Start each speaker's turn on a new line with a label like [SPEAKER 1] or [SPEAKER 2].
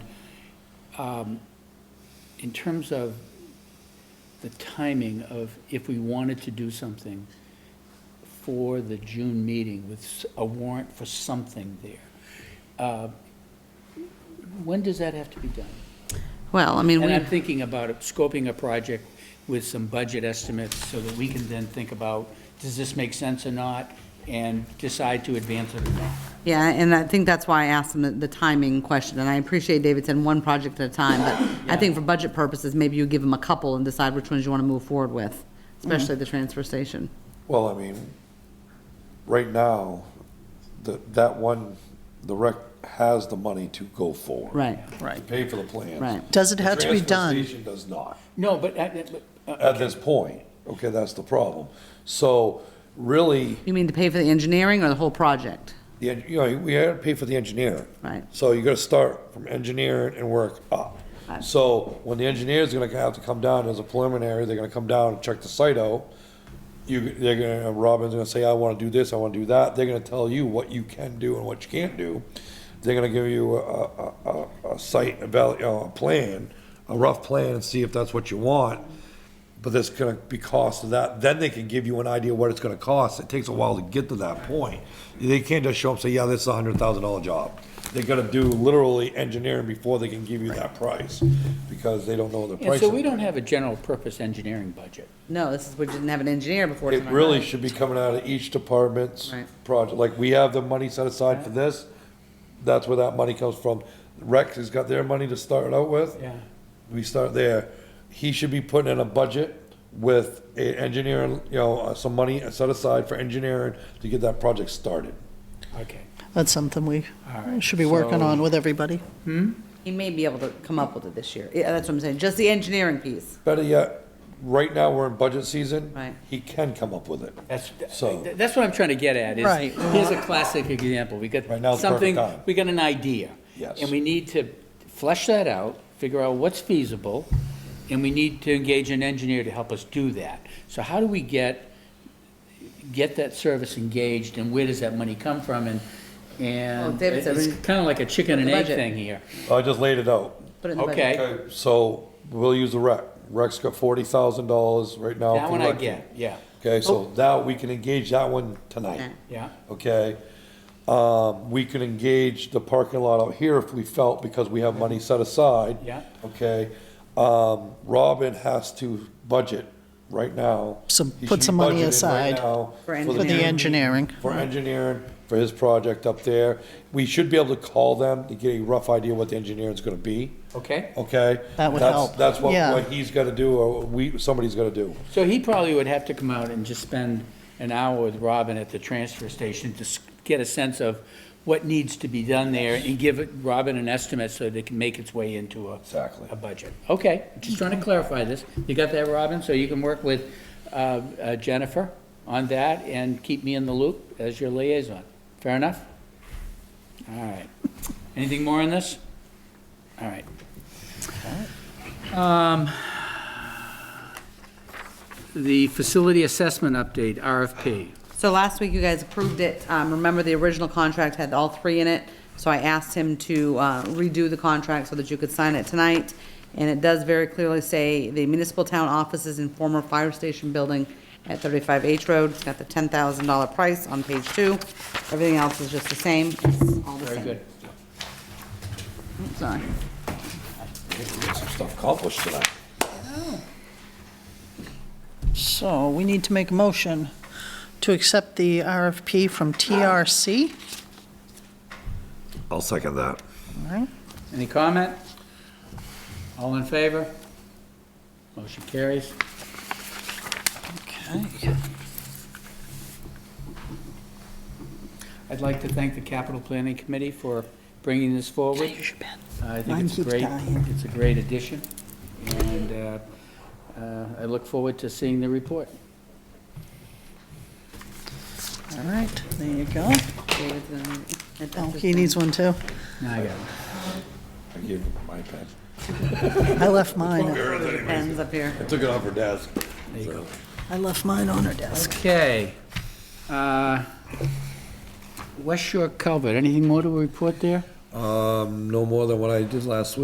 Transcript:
[SPEAKER 1] um, in terms of the timing of if we wanted to do something for the June meeting with s- a warrant for something there, uh, when does that have to be done?
[SPEAKER 2] Well, I mean,
[SPEAKER 1] And I'm
[SPEAKER 2] we,
[SPEAKER 1] thinking about it- scoping a project with some budget estimates so that we can then think about, does this make sense or not? And decide to advance it or not.
[SPEAKER 2] yeah, and I think that's why I asked him the- the timing question, and I appreciate David said one project at a time, but I think for budget purposes, maybe you give him a couple and decide which ones you want to move forward with, especially the transfer station.
[SPEAKER 3] Well, I mean, right now, that, that one, the rec has the money to go forward.
[SPEAKER 2] Right,
[SPEAKER 3] To pay for the plans.
[SPEAKER 2] right.
[SPEAKER 4] Does it have to be
[SPEAKER 3] The transfer
[SPEAKER 4] done?
[SPEAKER 3] station does not,
[SPEAKER 1] No, but, uh, but, uh,
[SPEAKER 3] at this point. Okay, that's the problem. So really,
[SPEAKER 2] You mean to pay for the engineering or the whole project?
[SPEAKER 3] the, en- you know, we had to pay for the engineering.
[SPEAKER 2] Right.
[SPEAKER 3] So you gotta start from engineering and work up.
[SPEAKER 2] Right.
[SPEAKER 3] So when the engineer's gonna have to come down as a preliminary, they're gonna come down and check the site out. You, they're gonna, Robin's gonna say, I wanna do this, I wanna do that, they're gonna tell you what you can do and what you can't do. They're gonna give you a, a, a, a site, eval you know, a plan, a rough plan and see if that's what you want. But there's gonna be cost of that, then they can give you an idea what it's gonna cost, it takes a while to get to that point. They can't just show up and say, yeah, this is a hundred thousand dollar job. They gotta do literally engineering before they can give you that price, because they don't know the
[SPEAKER 1] and
[SPEAKER 3] price.
[SPEAKER 1] so we don't have a general purpose engineering budget.
[SPEAKER 2] No, this is, we didn't have an engineer before.
[SPEAKER 3] It
[SPEAKER 2] tonight.
[SPEAKER 3] really should be coming out of each department's
[SPEAKER 2] Right.
[SPEAKER 3] project, like, we have the money set aside for this, that's where that money comes from. Rex has got their money to start out with.
[SPEAKER 1] Yeah.
[SPEAKER 3] We start there, he should be putting in a budget with a engineering, you know, uh, some money set aside for engineering to get that project started.
[SPEAKER 1] Okay.
[SPEAKER 4] That's something we
[SPEAKER 1] All right,
[SPEAKER 4] should be working
[SPEAKER 1] so-
[SPEAKER 4] on with everybody.
[SPEAKER 2] He may be able to come up with it this year. Yeah, that's what I'm saying, just the engineering piece.
[SPEAKER 3] Better yet, right now, we're in budget season.
[SPEAKER 2] Right.
[SPEAKER 3] He can come up with it.
[SPEAKER 1] That's,
[SPEAKER 3] So-
[SPEAKER 1] th- that's what I'm trying to get at, is,
[SPEAKER 4] Right.
[SPEAKER 1] here's a classic example, we got
[SPEAKER 3] Right, now's the
[SPEAKER 1] something,
[SPEAKER 3] perfect time.
[SPEAKER 1] we got an idea.
[SPEAKER 3] Yes.
[SPEAKER 1] And we need to flesh that out, figure out what's feasible, and we need to engage an engineer to help us do that. So how do we get, get that service engaged, and where does that money come from, and,
[SPEAKER 2] Well,
[SPEAKER 1] and
[SPEAKER 2] David said
[SPEAKER 1] it's
[SPEAKER 2] we-
[SPEAKER 1] kind of like a chicken and
[SPEAKER 2] the
[SPEAKER 1] egg
[SPEAKER 2] budget.
[SPEAKER 1] thing here.
[SPEAKER 3] I just laid it out.
[SPEAKER 2] Put it in the budget.
[SPEAKER 1] Okay,
[SPEAKER 3] Okay, so we'll use the rec. Rec's got forty thousand dollars right now.
[SPEAKER 1] that
[SPEAKER 3] for
[SPEAKER 1] one I
[SPEAKER 3] rec.
[SPEAKER 1] get, yeah,
[SPEAKER 3] Okay, so now we can engage that one tonight,
[SPEAKER 2] Okay.
[SPEAKER 1] yeah,
[SPEAKER 3] okay? Um, we can engage the parking lot out here if we felt, because we have money set aside.
[SPEAKER 1] Yeah.
[SPEAKER 3] Okay, um, Robin has to budget right now.
[SPEAKER 4] Some-
[SPEAKER 3] He
[SPEAKER 4] put
[SPEAKER 3] should be
[SPEAKER 4] some money
[SPEAKER 3] budgeting right
[SPEAKER 4] aside
[SPEAKER 3] now
[SPEAKER 2] For
[SPEAKER 4] For the engineering,
[SPEAKER 3] for engineering, for his project up there. We should be able to call them to get a rough idea what the engineering's gonna be,
[SPEAKER 1] okay.
[SPEAKER 3] okay?
[SPEAKER 4] That would
[SPEAKER 3] That's-
[SPEAKER 4] help,
[SPEAKER 3] That's what,
[SPEAKER 4] yeah.
[SPEAKER 3] what he's gotta do, or we, somebody's gotta do.
[SPEAKER 1] So he probably would have to come out and just spend an hour with Robin at the transfer station to s- get a sense of what needs to be done there and give it- Robin an estimate so that it can make its way into a.
[SPEAKER 3] Exactly.
[SPEAKER 1] A budget. Okay, just trying to clarify this. You got that, Robin? So you can work with uh, uh, Jennifer on that and keep me in the loop as your liaison. Fair enough? All right. Anything more on this? All right. The facility assessment update, RFP.
[SPEAKER 2] So last week, you guys approved it. Um, Remember, the original contract had all three in it, so I asked him to uh, redo the contract so that you could sign it tonight. And it does very clearly say the municipal town offices in former fire station building at 35 H Road. It's got the $10,000 price on page two. Everything else is just the same. It's all the
[SPEAKER 1] Very
[SPEAKER 2] same.
[SPEAKER 1] good.
[SPEAKER 2] Sorry.
[SPEAKER 3] Get some stuff accomplished tonight.
[SPEAKER 4] so we need to make a motion to accept the RFP from TRC.
[SPEAKER 3] I'll second that.
[SPEAKER 4] All right.
[SPEAKER 1] Any comment? All in favor? Motion carries.
[SPEAKER 4] Okay.
[SPEAKER 1] I'd like to thank the Capital Planning Committee for bringing this forward.
[SPEAKER 4] Use your pen.
[SPEAKER 1] I think
[SPEAKER 4] Mine
[SPEAKER 1] it's a
[SPEAKER 4] keeps
[SPEAKER 1] great,
[SPEAKER 4] dying.
[SPEAKER 1] it's a great addition, and uh, uh, I look forward to seeing the report.
[SPEAKER 4] All right, there you go.
[SPEAKER 2] David's gonna need it. That's
[SPEAKER 4] Oh,
[SPEAKER 2] his
[SPEAKER 4] he needs one too.
[SPEAKER 1] Now I got it.
[SPEAKER 3] I gave him my pen.
[SPEAKER 4] I left mine,
[SPEAKER 2] Pens up here.
[SPEAKER 3] I took it off her desk.
[SPEAKER 1] There you go.
[SPEAKER 4] I left mine on her desk.
[SPEAKER 1] Okay. Uh, West Shore Culvert, anything more to report there?
[SPEAKER 3] Um, no more than what I did last week.